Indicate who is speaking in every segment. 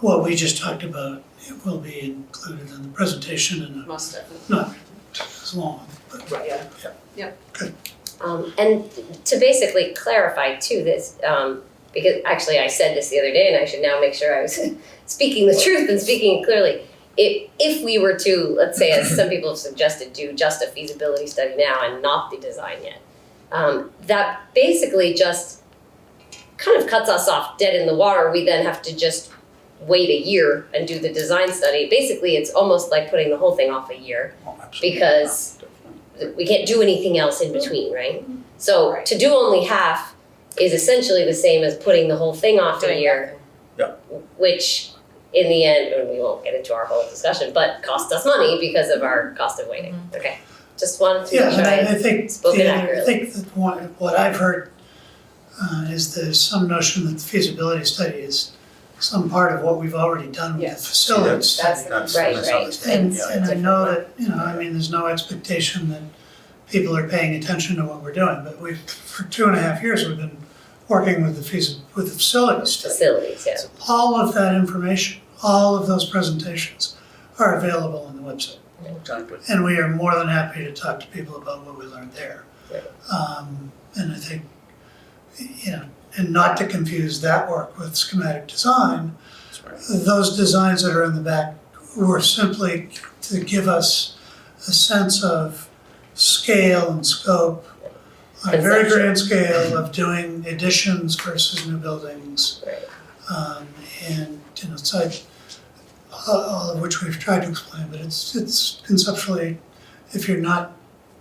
Speaker 1: what we just talked about, it will be included in the presentation and
Speaker 2: most definitely.
Speaker 1: not as long, but
Speaker 2: Yeah.
Speaker 3: Um, and to basically clarify too, this, um, because actually I said this the other day and I should now make sure I was speaking the truth and speaking clearly. If, if we were to, let's say, as some people have suggested, do just a feasibility study now and not the design yet, um, that basically just kind of cuts us off dead in the water. We then have to just wait a year and do the design study. Basically, it's almost like putting the whole thing off a year
Speaker 4: Oh,
Speaker 3: because we can't do anything else in between, right? So
Speaker 2: Right.
Speaker 3: to do only half is essentially the same as putting the whole thing off a
Speaker 2: Doing
Speaker 3: year. Which in the end, and we won't get into our whole discussion, but costs us money because of our cost of waiting, okay? Just wanted to
Speaker 1: Yeah,
Speaker 3: make sure
Speaker 1: and I, I
Speaker 3: I,
Speaker 1: think,
Speaker 3: spoken
Speaker 1: the- I
Speaker 3: accurately.
Speaker 1: think that one, what I've heard uh, is there's some notion that the feasibility study is some part of what we've already done with the
Speaker 2: Yes.
Speaker 1: facility
Speaker 4: That's-
Speaker 1: study.
Speaker 4: That's,
Speaker 3: Right,
Speaker 4: that's
Speaker 3: right.
Speaker 4: how this-
Speaker 1: And,
Speaker 3: It's-
Speaker 1: and
Speaker 3: it's
Speaker 1: I
Speaker 3: a
Speaker 1: know
Speaker 3: different
Speaker 1: that, you know, I mean, there's no expectation that people are paying attention to what we're doing, but we've, for two and a half years, we've been working with the feas, with the facility study.
Speaker 3: facilities, yeah.
Speaker 1: All of that information, all of those presentations are available on the website.
Speaker 4: Exactly.
Speaker 1: And we are more than happy to talk to people about what we learned there.
Speaker 3: Right.
Speaker 1: Um, and I think, you know, and not to confuse that work with schematic design,
Speaker 4: That's right.
Speaker 1: those designs that are in the back were simply to give us a sense of scale and scope on a very
Speaker 3: Conceptual.
Speaker 1: grand scale of doing additions versus new buildings.
Speaker 3: Right.
Speaker 1: Um, and, you know, so I, all all of which we've tried to explain, but it's, it's conceptually, if you're not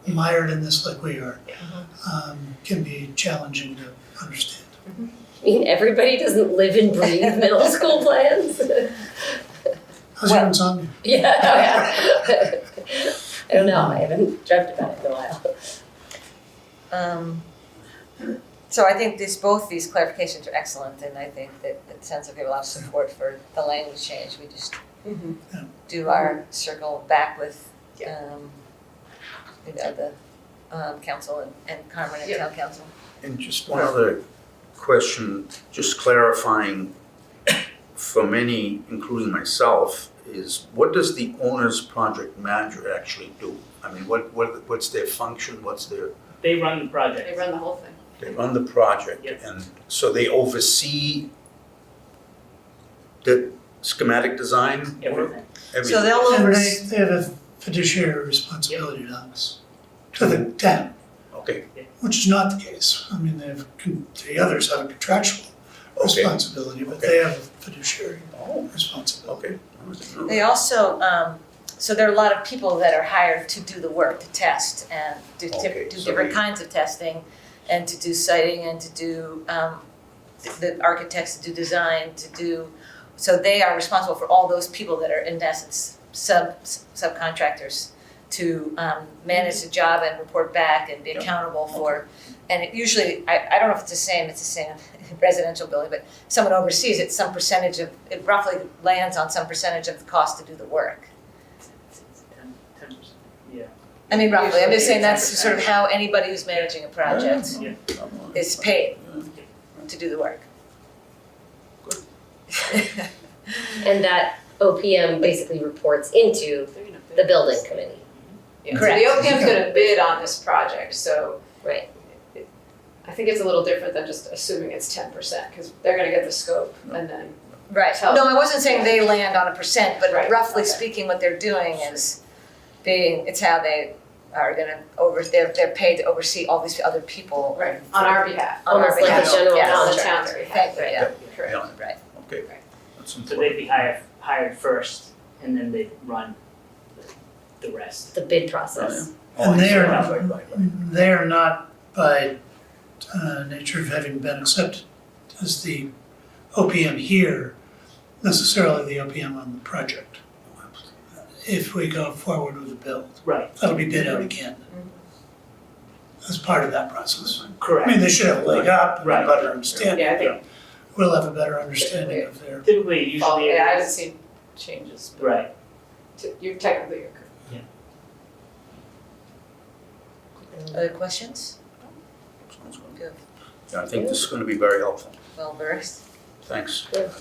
Speaker 1: mired in this like we are, um, can be challenging to understand.
Speaker 3: I mean, everybody doesn't live and breathe middle school plans.
Speaker 1: How's your insomnia?
Speaker 3: Yeah, oh yeah. I don't know, I haven't dreamt about it in a while.
Speaker 5: Um, so I think these, both these clarifications are excellent, and I think that it sounds like we have a lot of support for the language change, we just
Speaker 2: Mhm.
Speaker 1: Yeah.
Speaker 5: do our circle back with,
Speaker 2: Yeah.
Speaker 5: um, you know, the, um, council and, and Carmen and
Speaker 2: Yeah.
Speaker 5: town council.
Speaker 4: And just one other question, just clarifying for many, including myself, is what does the owner's project manager actually do? I mean, what, what, what's their function, what's their,
Speaker 6: They run the project.
Speaker 2: They run the whole thing.
Speaker 4: they run the project
Speaker 6: Yes.
Speaker 4: and so they oversee the schematic design work?
Speaker 6: everything.
Speaker 5: So
Speaker 4: Everything.
Speaker 5: they'll
Speaker 1: And
Speaker 5: over,
Speaker 1: they, they have a fiduciary responsibility to us, to the town,
Speaker 4: Okay,
Speaker 1: which is not the case. I mean, they have, con- the others have a contractual
Speaker 4: okay,
Speaker 1: responsibility, but they have a fiduciary
Speaker 4: Oh.
Speaker 1: responsibility.
Speaker 4: okay.
Speaker 5: they also, um, so there are a lot of people that are hired to do the work, to test and do
Speaker 4: Okay,
Speaker 5: tip, do
Speaker 4: so
Speaker 5: different
Speaker 4: they-
Speaker 5: kinds of testing and to do siting and to do, um, th- the architects to do design, to do, so they are responsible for all those people that are in essence sub, subcontractors to, um, manage the job and report back and be
Speaker 4: Yeah.
Speaker 5: accountable for. And it usually, I, I don't know if it's the same, it's the same in residential building, but someone oversees it, some percentage of, it roughly lands on some percentage of the cost to do the work.
Speaker 6: Ten percent, yeah.
Speaker 5: I mean, roughly, I'm just saying
Speaker 6: Usually
Speaker 5: that's
Speaker 6: 10%.
Speaker 5: sort of how anybody who's managing a project is paid to do the work.
Speaker 3: And that OPM basically reports into
Speaker 2: They're gonna bid
Speaker 3: the building
Speaker 2: this.
Speaker 3: committee.
Speaker 2: Yeah, so
Speaker 5: Correct.
Speaker 2: the OPM's gonna bid on this project, so.
Speaker 3: Right.
Speaker 2: it- I think it's a little different than just assuming it's ten percent, cause they're gonna get the scope and then
Speaker 5: Right,
Speaker 2: So-
Speaker 5: no, I wasn't saying they land on a percent, but
Speaker 2: Right,
Speaker 5: roughly
Speaker 2: okay.
Speaker 5: speaking, what they're doing is being, it's how they are gonna over, they're, they're paid to oversee all these other people.
Speaker 2: Right, on our behalf.
Speaker 5: On our
Speaker 3: Almost like
Speaker 5: behalf.
Speaker 3: a general
Speaker 5: Yes.
Speaker 2: On the
Speaker 3: contractor.
Speaker 2: town's
Speaker 5: Thank
Speaker 2: behalf,
Speaker 5: you, yeah,
Speaker 2: correct.
Speaker 5: right.
Speaker 4: Okay. That's
Speaker 6: So they'd
Speaker 4: important.
Speaker 6: be hired, hired first and then they'd run the- the rest.
Speaker 3: The bid process.
Speaker 4: Oh, I
Speaker 1: And they
Speaker 4: see.
Speaker 1: are-
Speaker 4: Right, right, right, right.
Speaker 1: They are not by uh, nature of having been accepted as the OPM here, necessarily the OPM on the project. If we go forward with the build,
Speaker 6: Right,
Speaker 1: that'll be bid out again as part of that process. I mean,
Speaker 6: correct.
Speaker 1: they should have a leg up and a
Speaker 6: Right.
Speaker 1: better understanding.
Speaker 2: Yeah, I think,
Speaker 1: We'll have a better understanding of their,
Speaker 6: Typically, usually.
Speaker 2: Oh, yeah, I haven't seen changes, but
Speaker 6: Right,
Speaker 2: t- you're technically, you're correct.
Speaker 5: Other questions?
Speaker 4: Sounds good.
Speaker 5: Good.
Speaker 4: Yeah, I think this is gonna be very helpful.
Speaker 5: Well versed.
Speaker 4: Thanks.
Speaker 3: Good.